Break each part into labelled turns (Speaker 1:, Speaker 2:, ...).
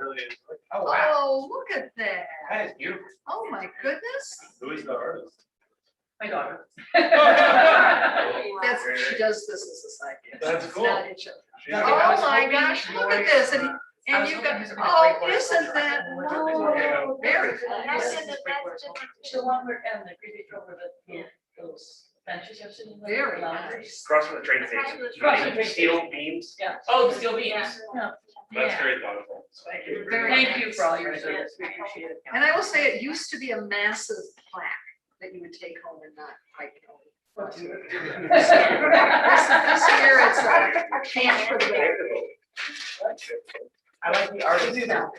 Speaker 1: really is like, oh wow,
Speaker 2: Oh, look at that.
Speaker 1: that is beautiful.
Speaker 2: Oh, my goodness.
Speaker 1: Who is the artist?
Speaker 3: My daughter.
Speaker 2: That's, she does this as a side gift.
Speaker 1: That's
Speaker 2: It's
Speaker 1: cool.
Speaker 2: not each other.
Speaker 1: She's
Speaker 2: Oh,
Speaker 1: like, I was
Speaker 2: my
Speaker 1: hoping
Speaker 2: gosh,
Speaker 1: she's
Speaker 2: look
Speaker 1: going,
Speaker 2: at this. And,
Speaker 1: uh, I
Speaker 2: and
Speaker 1: was
Speaker 2: you've
Speaker 1: hoping
Speaker 2: got,
Speaker 1: this was gonna
Speaker 2: oh,
Speaker 1: break my
Speaker 2: isn't
Speaker 1: culture.
Speaker 2: that,
Speaker 1: Yeah.
Speaker 2: no, very
Speaker 3: That's
Speaker 2: fun.
Speaker 3: in the- The one where, um, the creepy troll where the, those benches are sitting. there,
Speaker 2: Very
Speaker 3: loungers.
Speaker 2: nice.
Speaker 4: Across from the train
Speaker 5: Across
Speaker 4: station.
Speaker 5: from the
Speaker 3: train Right. station.
Speaker 4: Steel beams.
Speaker 3: Yeah.
Speaker 5: Oh, still beams.
Speaker 3: Yeah.
Speaker 4: That's
Speaker 5: Yeah.
Speaker 4: very wonderful. Thank you.
Speaker 2: Very
Speaker 3: Thank you
Speaker 2: nice.
Speaker 3: for all your service. We appreciate it.
Speaker 2: And I will say, it used to be a massive plaque that you would take home and not hike home. This, this year, it's a chance for the.
Speaker 1: I like the artist now.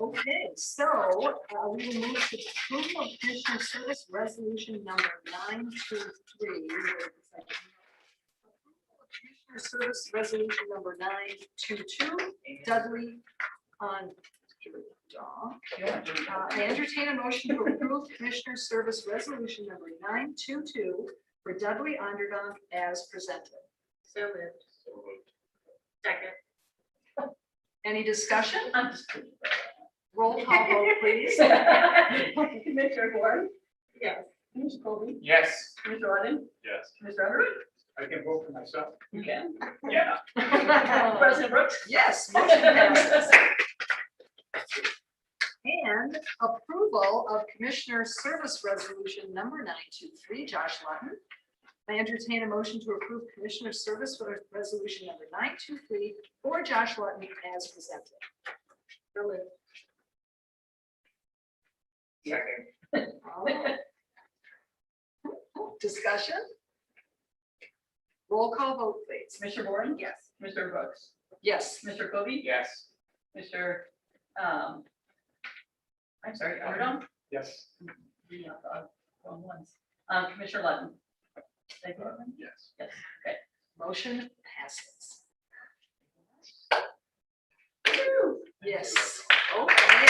Speaker 2: Okay, so uh, we will move to approval of commissioner service resolution number nine two three. Commissioner service resolution number nine two two Dudley on. Uh, I entertain a motion to approve commissioner service resolution number nine two two for Dudley Underdog as presented.
Speaker 5: So moved. Second.
Speaker 2: Any discussion?
Speaker 3: I'm just kidding.
Speaker 2: Roll call vote, please.
Speaker 3: Commissioner Warren?
Speaker 5: Yes.
Speaker 3: Commissioner Colby?
Speaker 1: Yes.
Speaker 3: Commissioner Warren?
Speaker 4: Yes.
Speaker 3: Commissioner Underwood?
Speaker 1: I can vote for myself.
Speaker 3: You can.
Speaker 4: Yeah.
Speaker 3: President Brooks?
Speaker 2: Yes, motion passes. And approval of Commissioner Service Resolution number nine two three, Josh Lutton. I entertain a motion to approve Commissioner Service Re- Resolution number nine two three for Josh Lutton as presented.
Speaker 1: Second.
Speaker 2: Oh. Discussion? Roll call vote, please.
Speaker 3: Commissioner Warren?
Speaker 2: Yes.
Speaker 3: Commissioner Brooks?
Speaker 2: Yes.
Speaker 3: Commissioner Colby?
Speaker 1: Yes.
Speaker 3: Mr. Um. I'm sorry, Underwood?
Speaker 1: Yes.
Speaker 3: Yeah, uh, wrong ones. Um, Commissioner Lutton? Did I get it right?
Speaker 1: Yes.
Speaker 2: Motion passes. Yes. Okay.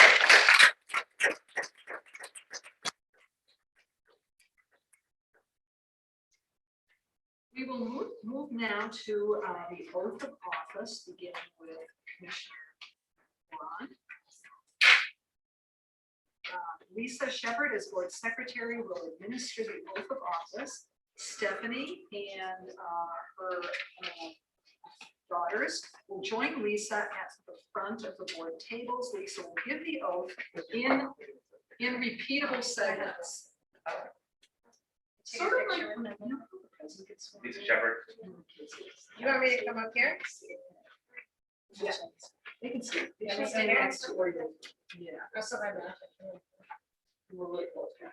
Speaker 2: We will move, move now to uh, the oath of office, beginning with Commissioner Braun. Uh, Lisa Shepherd as board secretary will administer the oath of office. Stephanie and uh, her uh, daughters will join Lisa at the front of the board tables. Lisa will give the oath in, in repeatable segments. Sort of like when a new president gets sworn
Speaker 4: Lisa
Speaker 2: in.
Speaker 4: Shepherd.
Speaker 5: You want me to come up here?
Speaker 2: Yeah, They can see.
Speaker 5: Yeah,
Speaker 2: She's
Speaker 5: stay there.
Speaker 2: next to where you- Yeah.
Speaker 5: Also, I'm not.
Speaker 2: we're really close now.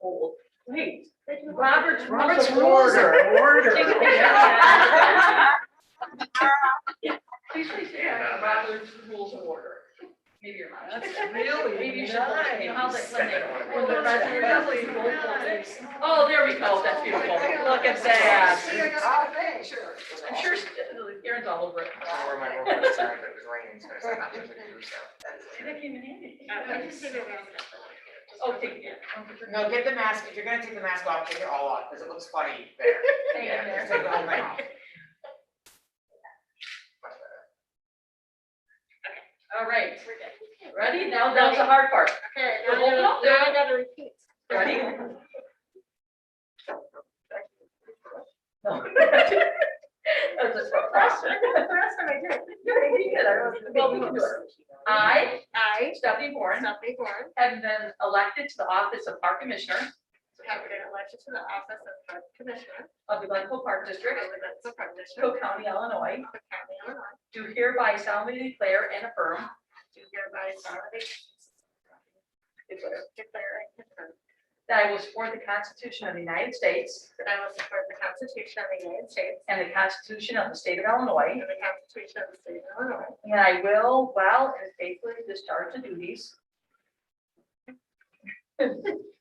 Speaker 3: Hold. Wait. Robert's.
Speaker 2: Robert's rules are order.
Speaker 3: Please, please, yeah, Robert's rules of order. Maybe you're not.
Speaker 2: really
Speaker 3: Maybe you should look at, you know, how's like when they-
Speaker 4: Well,
Speaker 2: that's really
Speaker 5: nice.
Speaker 3: Oh, there we go, that's beautiful, look at that. I'm sure Aaron's all over it.
Speaker 4: Or my girlfriend said it was raining, so I said, "I'm gonna do so."
Speaker 3: That came in handy.
Speaker 5: Oh,
Speaker 3: Oh, take it.
Speaker 6: No, get the mask, if you're gonna take the mask off, take it all off, because it looks funny there.
Speaker 3: Hang in
Speaker 6: Yeah,
Speaker 3: there.
Speaker 6: just take the whole thing off.
Speaker 3: All right, ready? Now, that's the hard part.
Speaker 5: Okay,
Speaker 3: now I gotta- now I
Speaker 5: gotta repeat.
Speaker 3: Ready? No. That was a tough question.
Speaker 5: That's what I did.
Speaker 3: You did it. I was- well, we can do it. I,
Speaker 5: I,
Speaker 3: Stephanie Warren,
Speaker 5: Stephanie Warren,
Speaker 3: have been elected to the office of Park Commissioner
Speaker 5: have been elected to the office of Park Commissioner
Speaker 3: of the Glencoe Park District,
Speaker 5: of the Benson Park District
Speaker 3: Cook County, Illinois,
Speaker 5: of County, Illinois.
Speaker 3: do hereby solemnly declare and affirm
Speaker 5: Do hereby solemnly declare and confirm
Speaker 3: that I will support the Constitution of the United States
Speaker 5: that I will support the Constitution of the United States
Speaker 3: and the Constitution of the State of Illinois,
Speaker 5: and the Constitution of the State of Illinois,
Speaker 3: and I will well and faithfully discharge the duties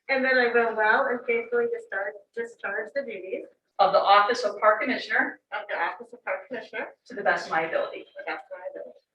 Speaker 5: and that I will well and faithfully discharge, discharge the duties
Speaker 3: of the office of Park Commissioner
Speaker 5: of the office of Park Commissioner
Speaker 3: to the best of my ability.
Speaker 5: to the best of my ability.